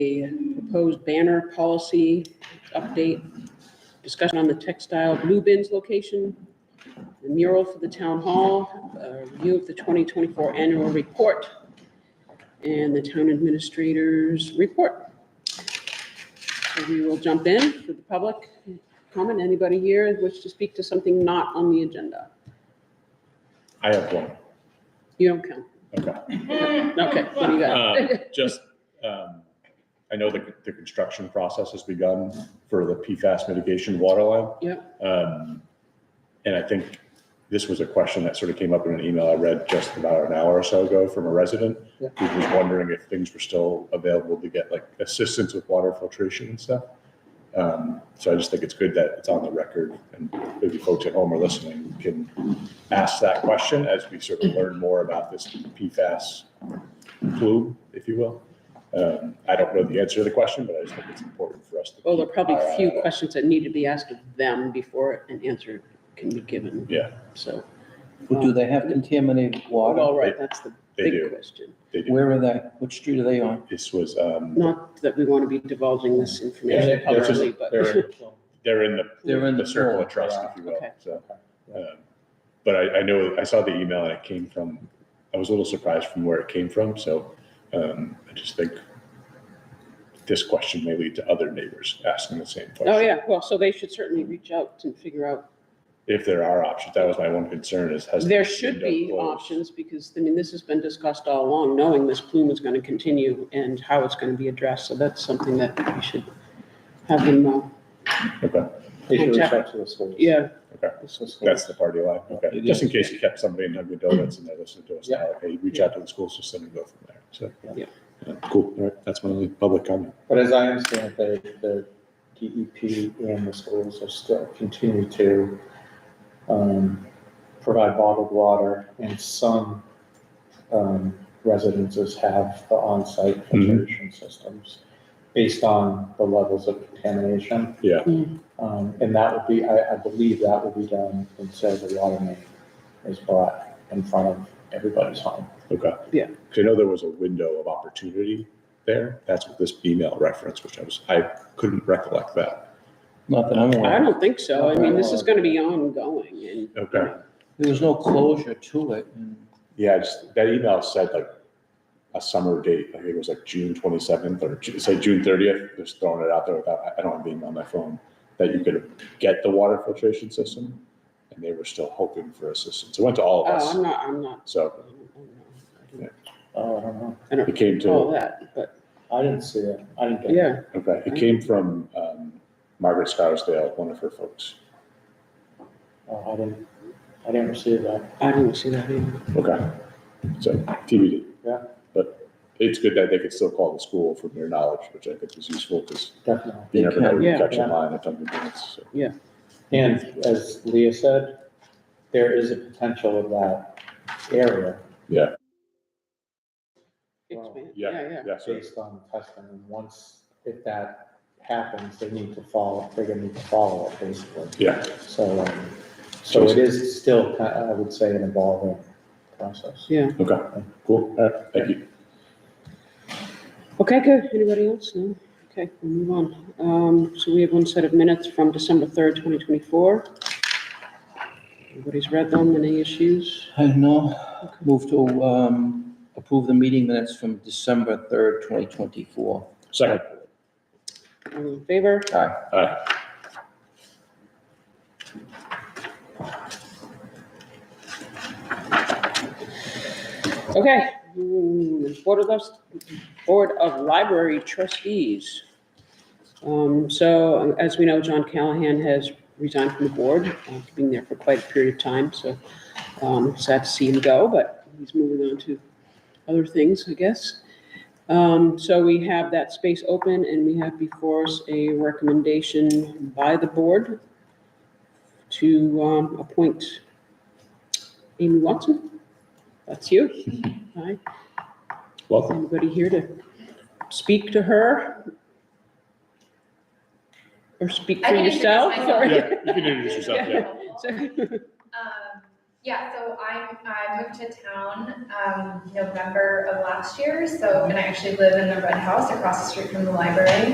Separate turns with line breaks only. a proposed banner policy update, discussion on the textile blue bins location, the mural for the town hall, a review of the 2024 annual report, and the town administrator's report. So we will jump in for the public comment. Anybody here wish to speak to something not on the agenda?
I have one.
You don't count.
Okay.
Okay, what do you got?
Um, Just, um, I know the, the construction process has begun for the PFAS mitigation water line.
Yep.
Um, And I think this was a question that sort of came up in an email I read just about an hour or so ago from a resident
Yeah.
who was wondering if things were still available to get like assistance with water filtration and stuff. Um, So I just think it's good that it's on the record and maybe folks at home are listening can ask that question as we sort of learn more about this PFAS plume, if you will. Um, I don't know the answer to the question, but I just think it's important for us to.
Well, there are
keep
probably
our eye
a few
on it.
questions that need to be asked of them before an answer can be given.
Yeah.
So,
Well, do they have contaminated water?
well, right, that's the
They
big
do,
question.
they do.
Where are they? What street are they on?
This was, um,
Not that we want to be divulging this
Yeah,
information
they're just-
publicly, but,
they're in- they're in the.
They're in the
circle
pool.
of trust, if you will,
Okay.
so. um, But I, I know, I saw the email and it came from, I was a little surprised from where it came from, so, um, I just think this question may lead to other neighbors asking the same question.
oh, yeah, well, so they should certainly reach out and figure out.
If there are options, that was my one concern is has.
There
the
should
window
be
closed?
options because, I mean, this has been discussed all along, knowing this plume is going to continue and how it's going to be addressed. So that's something that we should have them, uh,
Okay,
They should reach out to the schools.
yeah,
The schools.
that's the party line, okay,
It
just in
is.
case you kept somebody in Dunkin' Donuts and they listened to us
Yeah.
now, hey, reach out to the school system and go from there, so.
Yeah.
Yeah, Cool, all right, that's my only public comment.
But as I understand it, the, the DEP and the schools are still continue to, um, provide bottled water and some, um, residences have the on-site filtration systems based on the levels of contamination.
Yeah.
Mm.
Um, and that would be, I, I believe that would be done until the water main is brought in front of everybody's home.
Okay.
Yeah.
'Cause I know there was a window of opportunity there. That's what this email reference, which I was, I couldn't recollect that.
Not that I'm
I
aware of.
don't think so. I mean, this is going to be ongoing and
Okay.
There was no closure to it. and-
Yeah, I just, that email said like a summer date, I think it was like June twenty-seventh or Ju- say June thirtieth, just throwing it out there without, I- I don't have being on my phone, that you could get the water filtration system. And they were still hoping for assistance. It went to all of
Oh, I'm
us.
not, I'm not,
So
I don't- I don't know. I don't-
Oh, I don't know.
I don't
it came
recall
to,
that, but
I didn't see it. I didn't get it.
yeah,
okay, it came from, um, Margaret Scarsdale, one of her folks.
Oh, I didn't, I didn't receive that.
I didn't see that either.
Okay, so TBD.
Yeah.
But it's good that they could still call the school from their knowledge, which I think is useful because
Definitely.
you
They
never know
can,
when you
yeah,
catch a
yeah.
line at Dunkin' Donuts. so.
And as Leah said, there is a potential of that area
Yeah,
Expand-
Yeah,
Yeah,
yeah, so,
based on testing. And once, if that happens, they need to follow, they're gonna need to follow it basically.
yeah,
So, um, so it is still, ki- I would say, an evolving process.
yeah, yeah.
okay, cool, all right, thank you.
Okay, good. Anybody else? No? Okay, we'll move on. Um, so we have one set of minutes from December third, twenty twenty-four. Everybody's read them. Any issues?
I don't know. Move to um, approve the meeting minutes from December 3rd, 2024.
Second,
All in favor?
Aye.
all right,
Okay. Mm, Board of, Lus- Board of Library Trustees. Um, So as we know, John Callahan has resigned from the board, uh, been there for quite a period of time, so um, sad to see him go, but he's moving on to other things, I guess. Um, So we have that space open, and we have before us a recommendation by the board to um, appoint Amy Watson. That's you. Hi.
welcome.
Anybody here to speak to her? Or speak
I
for
can introduce
yourself?
myself.
Sorry.
Yeah, you can introduce
So-
yourself, yeah.
Um, Yeah, so I, I moved to town, um, November of last year, so, and I actually live in the red house across the street from the library.